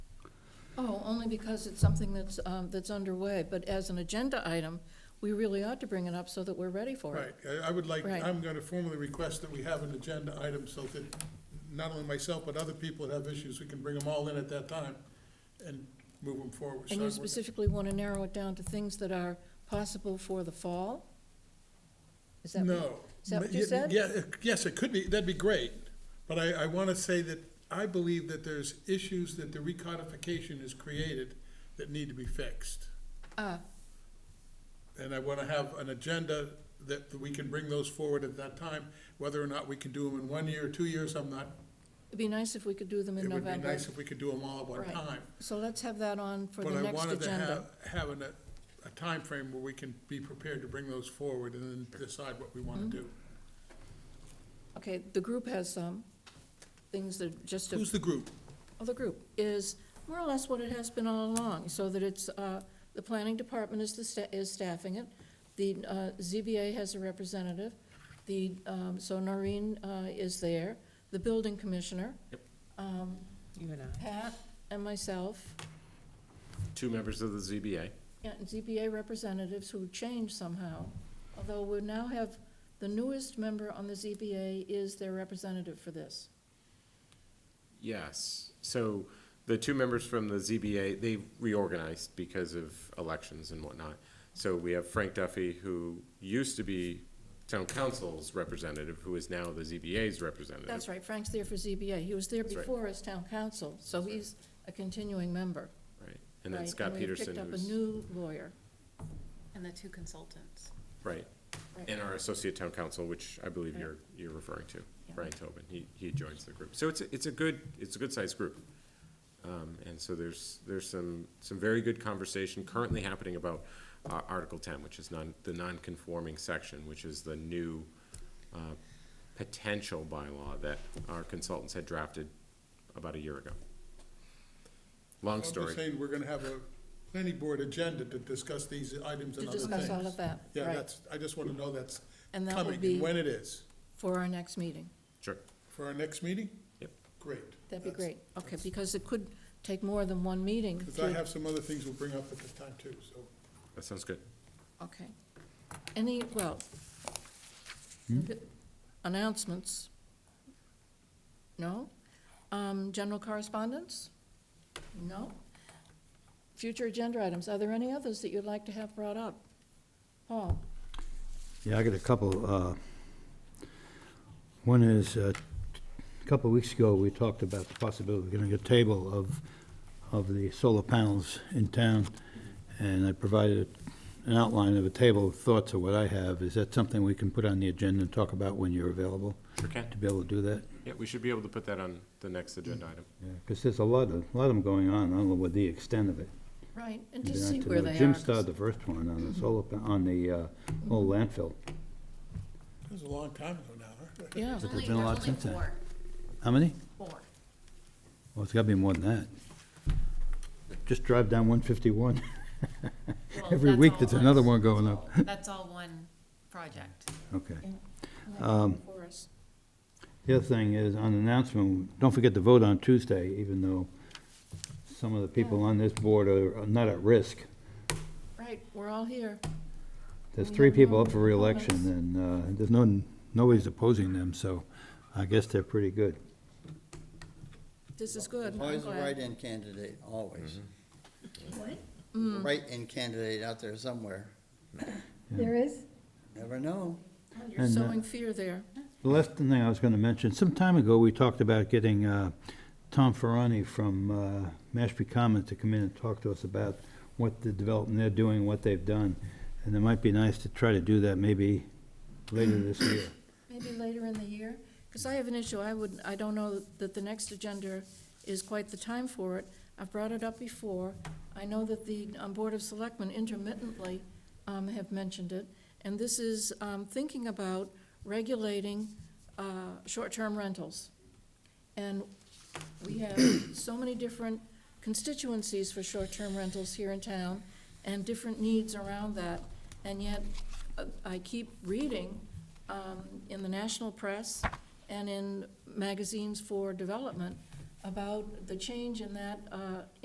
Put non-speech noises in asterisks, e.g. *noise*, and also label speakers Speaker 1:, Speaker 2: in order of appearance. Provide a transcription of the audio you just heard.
Speaker 1: Oh, only because it's something that's, um, that's underway, but as an agenda item, we really ought to bring it up so that we're ready for it.
Speaker 2: Right, I, I would like,
Speaker 1: Right.
Speaker 2: I'm gonna formally request that we have an agenda item so that not only myself, but other people that have issues, we can bring them all in at that time and move them forward.
Speaker 1: And you
Speaker 2: Start working.
Speaker 1: specifically want to narrow it down to things that are possible for the fall? Is that?
Speaker 2: No.
Speaker 1: is that what you
Speaker 2: Yeah,
Speaker 1: said?
Speaker 2: Yeah, it- yes, it could be, that'd be great, but I, I wanna say that I believe that there's issues that the recodification has created that need to be fixed.
Speaker 1: Ah,
Speaker 2: And I wanna have an agenda that we can bring those forward at that time, whether or not we can do them in one year or two years, I'm not,
Speaker 1: it'd be nice if we could do them in
Speaker 2: it would be
Speaker 1: November.
Speaker 2: nice if we could do them all at one
Speaker 1: Right.
Speaker 2: time.
Speaker 1: So let's have that on for
Speaker 2: But
Speaker 1: the
Speaker 2: I
Speaker 1: next
Speaker 2: wanted to
Speaker 1: agenda.
Speaker 2: have, have an- a, a timeframe where we can be prepared to bring those forward and then decide what we
Speaker 1: Mm-hmm.
Speaker 2: wanna do.
Speaker 1: Okay, the group has some things that just,
Speaker 2: Who's the group?
Speaker 1: oh, the group is more or less what it has been all along, so that it's, uh, the planning department is the, sta- is staffing it. The uh, ZBA has a representative. The, um, so Noreen uh, is there, the building commissioner. um,
Speaker 3: You and I.
Speaker 1: Pat and myself,
Speaker 4: two members of the ZBA.
Speaker 1: and ZBA representatives who changed somehow, although we now have, the newest member on the ZBA is their representative for this.
Speaker 4: Yes, so the two members from the ZBA, they reorganized because of elections and whatnot. So we have Frank Duffy, who used to be town council's representative, who is now the ZBA's representative.
Speaker 1: That's right, Frank's there for ZBA. He was there
Speaker 4: That's right.
Speaker 1: before as town council, so he's a continuing member.
Speaker 4: Right, and then
Speaker 1: right?
Speaker 4: Scott
Speaker 1: we
Speaker 4: Peterson,
Speaker 1: picked up a
Speaker 4: who's,
Speaker 1: new lawyer.
Speaker 5: And the two consultants.
Speaker 4: right,
Speaker 1: Right.
Speaker 4: and our associate town council, which I believe
Speaker 1: Right.
Speaker 4: you're, you're referring to,
Speaker 1: Yeah.
Speaker 4: Brian Tobin, he, he joins the group. So it's, a- it's a good, it's a good-sized group. Um, and so there's, there's some, some very good conversation currently happening about uh, Article ten, which is non, the non-conforming section, which is the new, uh, potential bylaw that our consultants had drafted about a year ago. Long
Speaker 2: I'm
Speaker 4: story.
Speaker 2: just saying, we're gonna have a planning board agenda to discuss these items
Speaker 1: To
Speaker 2: and other things.
Speaker 1: discuss all of that,
Speaker 2: Yeah,
Speaker 1: right,
Speaker 2: that's, I just wanna know that's
Speaker 1: And that will
Speaker 2: coming
Speaker 1: be-
Speaker 2: and when it is.
Speaker 1: for our next meeting.
Speaker 4: Sure,
Speaker 2: For our next meeting?
Speaker 4: Yep.
Speaker 2: Great.
Speaker 1: That'd be great. Okay, because it could take more than one meeting.
Speaker 2: Because
Speaker 1: to-
Speaker 2: I have some other things we'll bring up at this time too, so.
Speaker 4: that sounds good.
Speaker 1: Okay. Any, well,
Speaker 6: Hmm?
Speaker 1: announcements? No? Um, General correspondence? No? Future agenda items, are there any others that you'd like to have brought up? Paul?
Speaker 6: Yeah, I got a couple. uh, One is, uh, a couple of weeks ago, we talked about the possibility of getting a table of, of the solar panels in town, and I provided an outline of a table of thoughts of what I have. Is that something we can put on the agenda and talk about when you're available,
Speaker 4: Sure can.
Speaker 6: to be able to do that?
Speaker 4: Yeah, we should be able to put that on the next agenda item.
Speaker 6: Because there's a lot of, a lot of them going on, I don't know what the extent of it.
Speaker 1: Right, and to
Speaker 6: Yeah,
Speaker 1: see
Speaker 6: to
Speaker 1: where
Speaker 6: know.
Speaker 1: they are.
Speaker 6: Jim started the first one on the solar, pa- on the uh, old landfill.
Speaker 2: That was a long time ago now, huh? *laughs*
Speaker 1: Yeah,
Speaker 5: There's
Speaker 6: there's
Speaker 5: only,
Speaker 6: been a
Speaker 5: there's
Speaker 6: lot
Speaker 5: only
Speaker 6: since then.
Speaker 5: four,
Speaker 6: How many?
Speaker 5: four.
Speaker 6: Well, it's gotta be more than that. Just drive down one fifty-one.
Speaker 5: Well,
Speaker 6: Every
Speaker 5: that's
Speaker 6: week
Speaker 5: all
Speaker 6: there's
Speaker 5: one.
Speaker 6: another one going
Speaker 5: That's
Speaker 6: up. *laughs*
Speaker 5: all- That's all one project.
Speaker 6: Okay.
Speaker 1: for us.
Speaker 6: The other thing is, on announcement, don't forget to vote on Tuesday, even though some of the people on this board are are not at risk.
Speaker 1: Right, we're all here.
Speaker 6: There's
Speaker 1: We
Speaker 6: three
Speaker 1: have
Speaker 6: people
Speaker 1: no
Speaker 6: up for reelection,
Speaker 1: opponents.
Speaker 6: and uh, there's no, nobody's opposing them, so I guess they're pretty good.
Speaker 1: This is good. I'm
Speaker 7: Always a
Speaker 1: glad.
Speaker 7: write-in candidate, always. Write-in candidate out there somewhere.
Speaker 8: There is?
Speaker 7: Never know.
Speaker 1: You're
Speaker 6: And, uh,
Speaker 1: sowing fear there.
Speaker 6: The last thing I was going to mention, some time ago, we talked about getting uh, Tom Ferrani from uh, Mashpee Commons to come in and talk to us about what the development they're doing, what they've done. And it might be nice to try to do that maybe later this year.
Speaker 1: Maybe later in the year, because I have an issue, I would, I don't know that the next agenda is quite the time for it. I've brought it up before. I know that the um, Board of Selectmen intermittently um, have mentioned it, and this is um, thinking about regulating uh, short-term rentals. And we have so many different constituencies for short-term rentals here in town, and different needs around that, and yet uh, I keep reading um, in the national press and in magazines for development about the change in that uh,